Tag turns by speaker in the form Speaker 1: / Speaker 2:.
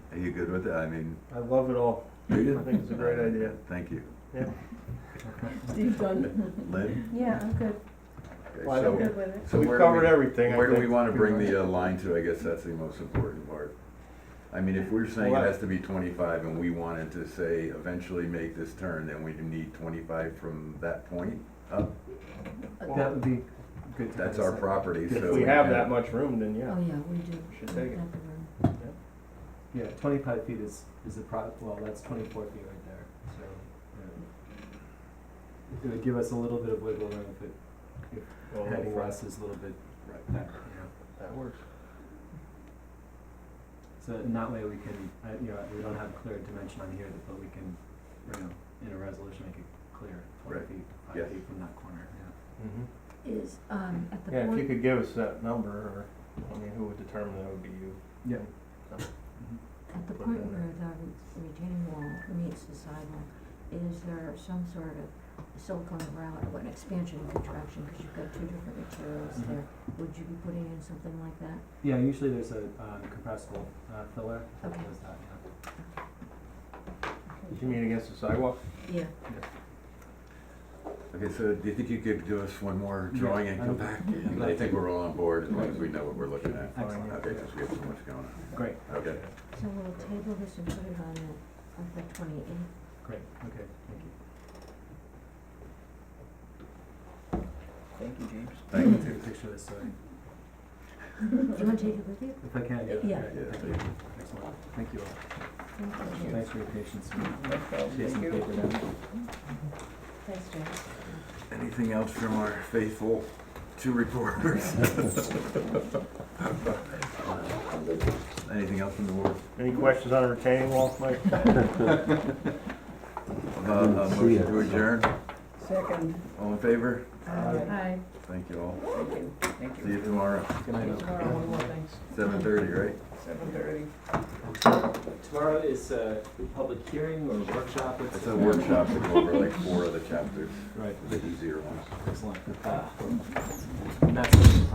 Speaker 1: you good with that? I mean,
Speaker 2: I love it all.
Speaker 1: I
Speaker 2: think it's a great idea.
Speaker 1: Thank you.
Speaker 3: Steve done?
Speaker 1: Lynn?
Speaker 4: Yeah, I'm good,
Speaker 1: Okay,
Speaker 2: Well, I
Speaker 1: so-
Speaker 2: don't-
Speaker 4: good with it.
Speaker 1: So
Speaker 2: We've
Speaker 1: where do
Speaker 2: covered
Speaker 1: we-
Speaker 2: everything, I
Speaker 1: Where do we
Speaker 2: think,
Speaker 1: wanna
Speaker 2: pretty
Speaker 1: bring
Speaker 2: much.
Speaker 1: the uh, line to? I guess that's the most important part. I mean, if we're saying it
Speaker 2: Well, I-
Speaker 1: has to be twenty-five and we wanted to say eventually make this turn, then we need twenty-five from that point up.
Speaker 5: That would be good to
Speaker 1: That's
Speaker 5: have a
Speaker 1: our
Speaker 5: second.
Speaker 1: property, so.
Speaker 2: If we have
Speaker 1: can-
Speaker 2: that much room, then yeah,
Speaker 3: Oh, yeah, we do.
Speaker 2: we should take it.
Speaker 3: Not the room.
Speaker 5: Yeah, twenty-five feet is, is the pro, well, that's twenty-four feet right there, so. yeah. It would give us a little bit of wiggle room if it,
Speaker 2: Well,
Speaker 5: heading
Speaker 2: hopefully.
Speaker 5: west is a little bit,
Speaker 2: Right.
Speaker 5: that, you know.
Speaker 2: That works.
Speaker 5: So in that way, we can, uh, you know, we don't have a clear dimension on here, but we can, you know, in a resolution, make it clear, twenty
Speaker 1: Right.
Speaker 5: feet,
Speaker 1: Yes.
Speaker 5: five feet from that corner, yeah.
Speaker 3: Is, um, at the
Speaker 2: Mm-hmm. Yeah, if you
Speaker 3: point,
Speaker 2: could give us that number, or, I mean, who would determine that would be you?
Speaker 5: Yeah. mhm.
Speaker 3: at the
Speaker 2: put
Speaker 3: point
Speaker 2: in there.
Speaker 3: where the re- retaining wall meets the sidewalk, is there some sort of silicone grout or an expansion and contraction, because you've got two different materials
Speaker 2: Mm-hmm.
Speaker 5: Mhm.
Speaker 3: there? Would you be putting in something like that?
Speaker 5: Yeah, usually there's a, um, compressible, uh, filler, that
Speaker 3: Okay.
Speaker 5: does that, yeah.
Speaker 2: You mean against the sidewalk?
Speaker 3: Yeah.
Speaker 1: Okay, so do you think you could do us one more drawing and
Speaker 5: Yeah,
Speaker 1: come
Speaker 5: I-
Speaker 1: back? And I think we're all on board as long as we know what we're looking at.
Speaker 5: Excellent.
Speaker 1: Okay, because we have so much going on.
Speaker 5: Great,
Speaker 1: Okay.
Speaker 3: So we'll table this and put it on the, on the twenty-eighth.
Speaker 5: great, okay, thank you.
Speaker 2: Thank you, James.
Speaker 1: Thank you.
Speaker 5: Take a picture of this, so
Speaker 3: Do you wanna take it with you?
Speaker 5: if I can, yeah.
Speaker 1: Yeah.
Speaker 3: Yeah.
Speaker 5: great, Thank you, excellent, thank you all.
Speaker 3: Thank you.
Speaker 5: Thanks for your patience.
Speaker 2: Thank you.
Speaker 3: Thanks, James.
Speaker 1: Anything else from our faithful two reporters? Anything else from the board?
Speaker 2: Any questions on retaining wall, Mike?
Speaker 1: Uh, uh, motion to adjourn?
Speaker 6: Second.
Speaker 1: All in favor?
Speaker 3: Hi.
Speaker 1: Thank you all.
Speaker 6: Thank you, thank
Speaker 1: See
Speaker 6: you.
Speaker 1: you tomorrow,
Speaker 6: Tomorrow, one more thing,
Speaker 1: seven thirty, right?
Speaker 6: seven thirty.
Speaker 5: Tomorrow is a public hearing or workshop.
Speaker 1: It's a workshop to go over like four of the chapters,
Speaker 5: Right,
Speaker 1: the easier ones.
Speaker 5: excellent. Uh, Ah. and that's-